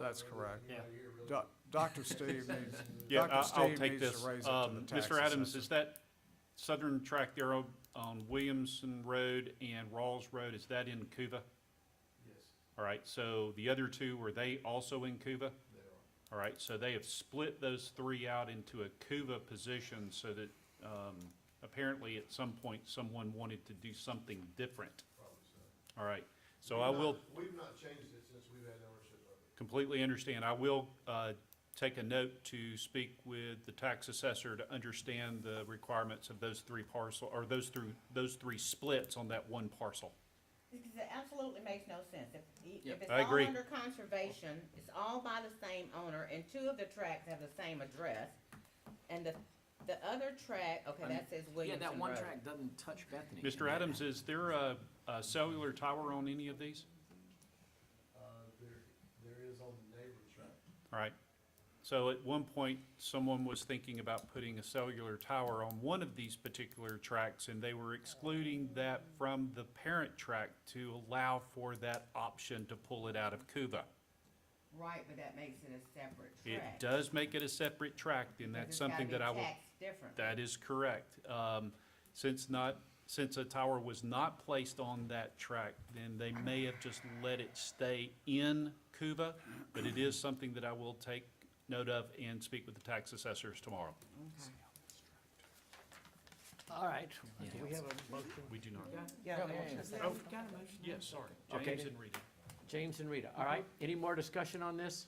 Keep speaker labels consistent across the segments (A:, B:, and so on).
A: That's correct.
B: Yeah.
A: Doc- Dr. Steve needs,
C: Yeah,
A: Dr.
C: I- I'll
A: Steve
C: take
A: needs
C: this.
A: to raise it to the
C: Um,
A: tax
C: Mr. Adams,
A: assessor.
C: is that southern track there on- on Williamson Road and Rawls Road, is that in Cuba?
B: Yes,
C: All right, so the other two, were they also in Cuba?
B: they are.
C: All right, so they have split those three out into a Cuba position so that um, apparently at some point, someone wanted to do something different.
B: Probably so.
C: All right, so I will
B: We've not changed it since we've had ownership of it.
C: completely understand. I will uh, take a note to speak with the tax assessor to understand the requirements of those three parcel, or those through, those three splits on that one parcel.
D: Because it absolutely makes no sense. If, if it's
C: I
D: all
C: agree.
D: under conservation, it's all by the same owner, and two of the tracks have the same address. And the, the other track, okay, that says
E: Yeah,
D: Williamson
E: that one
D: Road.
E: track doesn't touch Bethany.
C: Mr. Adams, is there a a cellular tower on any of these?
B: Uh, there, there is on the neighbor's track.
C: All right. So at one point, someone was thinking about putting a cellular tower on one of these particular tracks, and they were excluding that from the parent track to allow for that option to pull it out of Cuba.
D: Right, but that makes it a separate track.
C: It does make it a separate tract, and that's something that I will. That is correct. Um, Since not, since a tower was not placed on that track, then they may have just let it stay in Cuba, but it is something that I will take note of and speak with the tax assessors tomorrow.
F: All right, do we have a motion?
C: We do not.
F: Yeah, yeah, yeah.
E: You've got a motion.
C: Yes, sorry.
F: Okay.
C: James and Rita.
F: James and Rita, all right, any more discussion on this?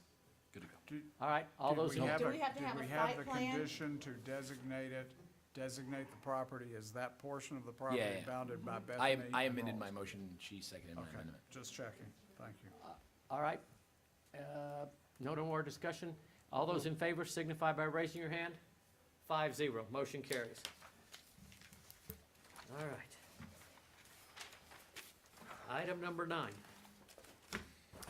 C: Good to go.
A: Do-
F: All right, all
A: do
F: those,
A: we
F: in-
D: have- Do
A: a-
D: we to have
A: Do we
D: a
A: have
D: site
A: the
D: plan?
A: condition to designate it, designate the property as that portion of the property
E: yeah.
A: bounded
D: Mm-hmm.
A: by Bethany?
E: I, I
A: and
E: amended my
A: Rawls?
E: motion, she seconded my
A: Okay,
E: amendment.
A: just checking. Thank you.
F: all right, uh, no more discussion? All those in favor signify by raising your hand. Five zero, motion carries. All right. Item number nine.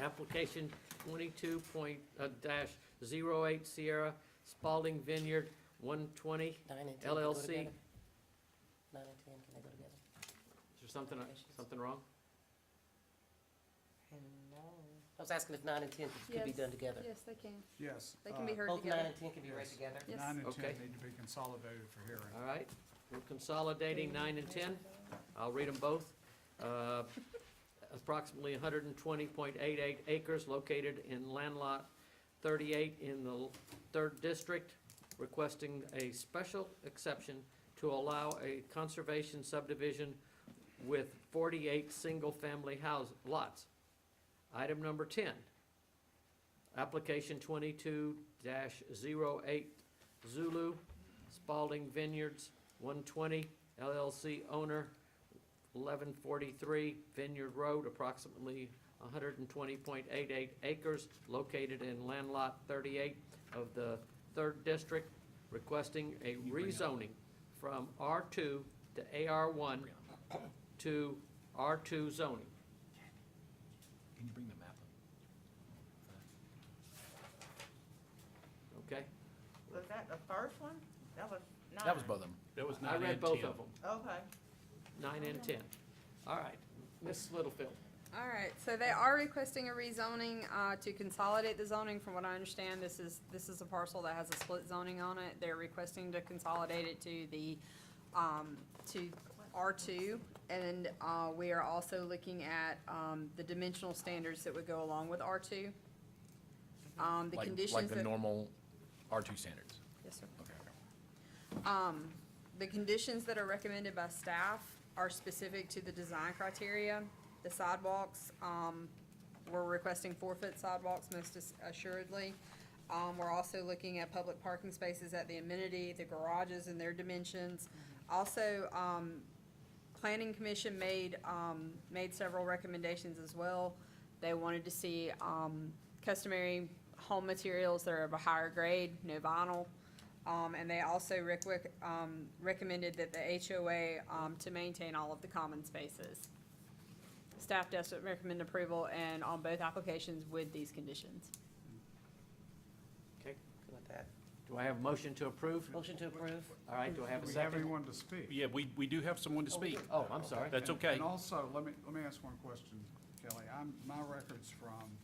F: Application twenty-two point, uh, dash zero eight Sierra Spalding Vineyard, one twenty. Is
G: Nine and ten can go
F: LLC.
G: together. Nine and ten, can they go together?
F: there something, something wrong?
G: I was asking if nine and ten could- could be
H: Yes.
G: done together.
H: Yes, they can.
A: Yes.
H: They can be
A: uh,
H: heard
G: Both nine
H: together.
G: and ten can be read
A: Yes.
G: together?
H: Yes.
A: Nine and
F: Okay.
A: ten need to be consolidated for hearing.
F: All right, we're consolidating nine and 10. I'll read them both. Uh, Approximately 120.88 acres located in land lot 38 in the 3rd District, requesting a special exception to allow a conservation subdivision with 48 single-family house lots. Item number 10, application 22-08 Zulu Spalding Vineyards, 120 LLC owner, 1143 Vineyard Road, approximately 120.88 acres, located in land lot 38 of the 3rd District, requesting a rezoning from R2 to AR1 to R2 zoning.
E: Can you bring the map up?
F: Okay?
D: Was that the first one? That was nine.
E: That was both of them.
C: That was
F: I
C: nine
F: read
C: and
F: both
C: 10.
F: of them,
D: Okay.
F: 9 and 10. All right, Ms. Littlefield.
H: All right, so they are requesting a rezoning, uh, to consolidate the zoning. From what I understand, this is, this is a parcel that has a split zoning on it. They're requesting to consolidate it to the, um, to R two. And, uh, we are also looking at, um, the dimensional standards that would go along with R two. Um, the
E: Like-
H: conditions
E: Like
H: that.
E: the normal R2 standards.
H: Yes, sir.
E: Okay, okay.
H: Um, The conditions that are recommended by staff are specific to the design criteria. The sidewalks, um, we're requesting four-foot sidewalks most as- assuredly. Um, we're also looking at public parking spaces at the amenity, the garages and their dimensions. Also, um, Planning Commission made, um, made several recommendations as well. They wanted to see, um, customary home materials that are of a higher grade, no vinyl. Um, and they also rec- rec- um, recommended that the HOA, um, to maintain all of the common spaces. Staff does recommend approval and on both applications with these conditions.
F: Okay,
G: Good with that.
F: do I have a motion to approve?
G: Motion to approve?
F: All right, do I have a
A: Do we have
F: second?
A: anyone to speak?
C: Yeah, we, we do have someone to speak.
F: Oh, I'm sorry.
C: That's
A: And-
C: okay.
A: And also, let me, let me ask one question, Kelly. I'm, my record's from